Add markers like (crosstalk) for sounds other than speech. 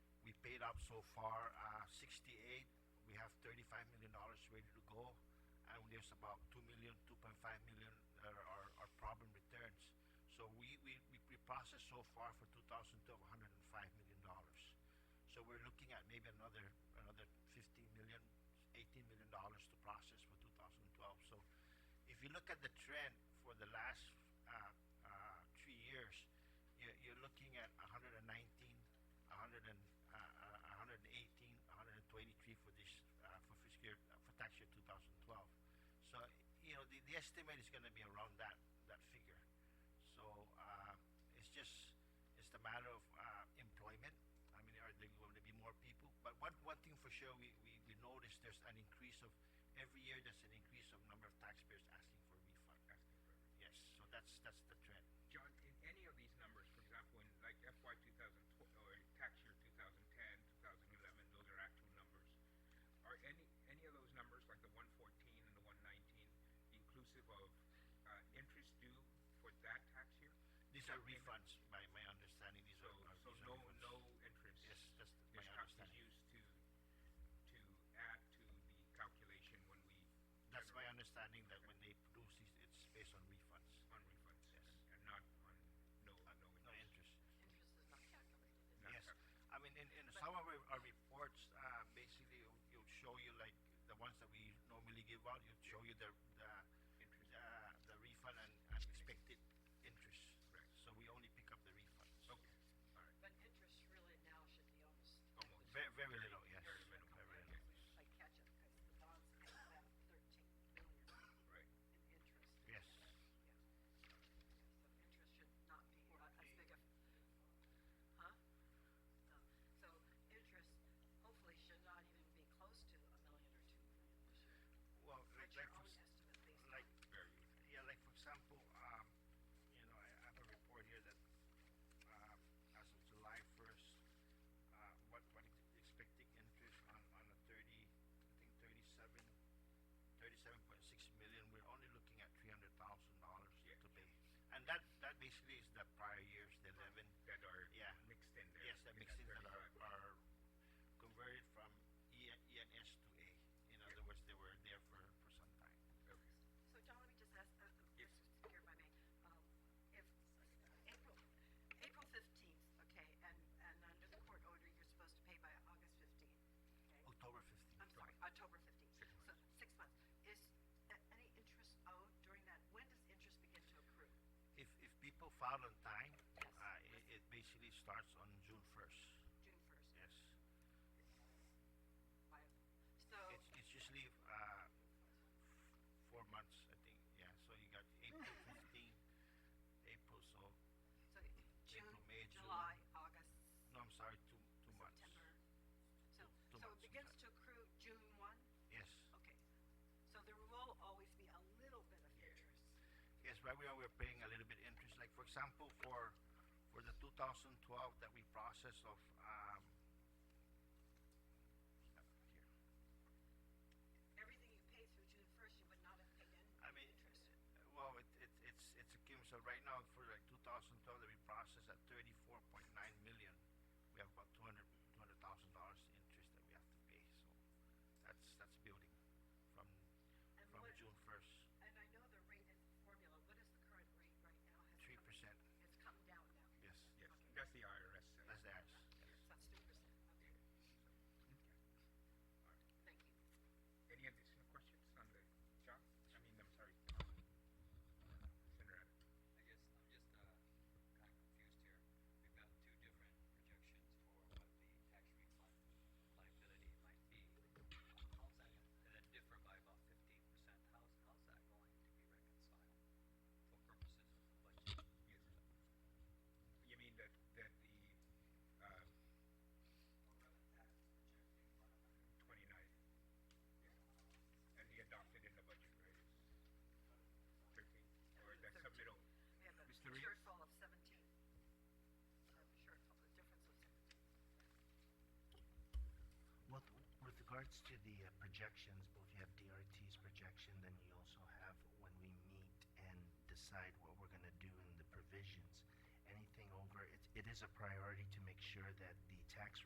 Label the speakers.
Speaker 1: up so far, uh, 68. We have 35 million dollars ready to go, and there's about 2 million, 2.5 million that are, are, are problem returns. So we, we, we we processed so far for 2012 105 million dollars. So we're looking at maybe another another 15 million, 18 million dollars to process for 2012. So if you look at the trend for the last uh, uh, three years, you're, you're looking at 119, 100 and, uh, uh, 118, 123 for this uh, for fiscal year, for tax year 2012. So you know the, the estimate is going to be around that that figure. So uh, it's just it's a matter of uh, employment. I mean, are there going to be more people? But one one thing for sure, we, we, we noticed there's an increase of every year. There's an increase of number of taxpayers asking for refund.
Speaker 2: asking for everything.
Speaker 1: Yes, so that's that's the trend.
Speaker 2: John, in any of these numbers, for example, in like FY 2012 or tax year 2010, 2011, those are actual numbers. Are any, any of those numbers, like the 114 and the 119, inclusive of uh, interest due for that tax year?
Speaker 1: These are refunds, by my understanding. These
Speaker 2: So,
Speaker 1: are are-
Speaker 2: so
Speaker 1: these are
Speaker 2: no,
Speaker 1: refunds.
Speaker 2: no interest?
Speaker 1: Yes, that's my
Speaker 2: is cal-
Speaker 1: understanding.
Speaker 2: Is used to, to add to the calculation when we.
Speaker 1: That's my
Speaker 2: generate
Speaker 1: understanding that when they produce these, it's based on refunds,
Speaker 2: On refunds?
Speaker 1: Yes. Uh,
Speaker 2: and- And not on, no, no interest?
Speaker 1: no interest.
Speaker 3: Interest is not calculated. is it?
Speaker 2: No.
Speaker 1: Yes, I mean, in, in some of our, our reports, uh, basically, it'll- it'll show you like the ones that we normally give out, it'll show you the, the,
Speaker 2: Interest.
Speaker 1: uh, the refund and and expected interest.
Speaker 2: Right.
Speaker 1: So we only pick up the refunds.
Speaker 2: Okay, all right.
Speaker 3: But interest really now should be almost.
Speaker 2: Almost.
Speaker 1: Very, very little, yes.
Speaker 2: Very minimal.
Speaker 1: Very
Speaker 2: Okay.
Speaker 1: little.
Speaker 3: I catch it because the bonds pay about thirteen million
Speaker 2: Right.
Speaker 3: in interest.
Speaker 1: Yes.
Speaker 3: Yeah. So interest should not be a- as big of, huh? No. So interest hopefully should not even be close to a million or two million this year.
Speaker 1: Well,
Speaker 3: What's
Speaker 1: like,
Speaker 3: your
Speaker 1: like, for
Speaker 3: own
Speaker 1: s-
Speaker 3: estimate based on?
Speaker 1: like,
Speaker 2: Very,
Speaker 1: yeah, like, for example, um, you know, I have a report here that, um, as of July first, uh, what, what is expecting interest on, on a thirty, I think thirty-seven, thirty-seven point six million, we're only looking at three hundred thousand dollars
Speaker 2: Yeah.
Speaker 1: to pay. And that, that basically is the prior years, the eleven,
Speaker 2: that are
Speaker 1: Yeah.
Speaker 2: mixed in there.
Speaker 1: yes, that makes it that are,
Speaker 2: 35.
Speaker 1: are converted from E, ENS to A. In other words, they were there for, for some time.
Speaker 2: Okay.
Speaker 3: So John, let me just ask, uh,
Speaker 2: Yes.
Speaker 3: uh, just here if I may, um, if April, April fifteenth, okay, and, and under the court order, you're supposed to pay by August fifteenth, okay?
Speaker 1: October fifteenth.
Speaker 3: I'm sorry, October fifteenth.
Speaker 2: Six
Speaker 3: So,
Speaker 2: months.
Speaker 3: six months. Is a- any interest owed during that? When does interest begin to accrue?
Speaker 1: If, if people file on time,
Speaker 3: Yes.
Speaker 1: uh, it, it basically starts on June first,
Speaker 3: June first?
Speaker 1: yes.
Speaker 3: So,
Speaker 1: It's, it's usually, uh, f- four months, I think, yeah, so you got April
Speaker 3: (laughs)
Speaker 1: fifteen, April, so,
Speaker 3: so June,
Speaker 1: May, June,
Speaker 3: July, August,
Speaker 1: no, I'm sorry, two, two months.
Speaker 3: September. So,
Speaker 1: Two
Speaker 3: so it
Speaker 1: months, I'm
Speaker 3: begins
Speaker 1: sorry.
Speaker 3: to accrue June one?
Speaker 1: Yes,
Speaker 3: Okay, so there will always be a little bit of interest.
Speaker 1: yes, right now we're paying a little bit interest, like, for example, for, for the two thousand twelve that we processed of, um, here,
Speaker 3: Everything you pay through June first, you would not have paid
Speaker 1: I
Speaker 3: any
Speaker 1: mean,
Speaker 3: interest.
Speaker 1: well, it, it, it's, it's a cumulative. So right now, for like 2012, that we processed at 34.9 million, we have about 200, $200,000 interest that we have to pay. So that's, that's building from,
Speaker 3: And
Speaker 1: from
Speaker 3: what-
Speaker 1: June 1st,
Speaker 3: And I know the rate is formula, what is the current rate right now? Has it come-
Speaker 1: 3%.
Speaker 3: It's come down now.
Speaker 1: Yes,
Speaker 2: Yes, that's the IRS. side.
Speaker 1: that's theirs.
Speaker 3: So that's three percent, okay,
Speaker 2: Okay. All right.
Speaker 3: thank you.
Speaker 2: Any additional questions on the, John? I mean, I'm sorry. Senator Abbott.
Speaker 4: I guess I'm just uh, kind of confused here. We've got two different projections for what the tax refund liability might be. How's that, and then differ by about fifteen percent. How's, how's that going to be reconciled for purposes of the budget?
Speaker 2: Yes. You mean that, that the, uh, twenty-nine? yeah. And he adopted in the budget, right? It's Thirteen, or
Speaker 3: And the
Speaker 2: that's the
Speaker 3: 13.
Speaker 2: middle?
Speaker 3: We have a
Speaker 2: Mr. Reed?
Speaker 3: shortfall of seventeen. A Shortfall, the difference of seventeen.
Speaker 5: With, with regards to the uh, projections, both you have DRT's projection, then you also have when we meet and decide what we're gonna do in the provisions. Anything over, it, it is a priority to make sure that the tax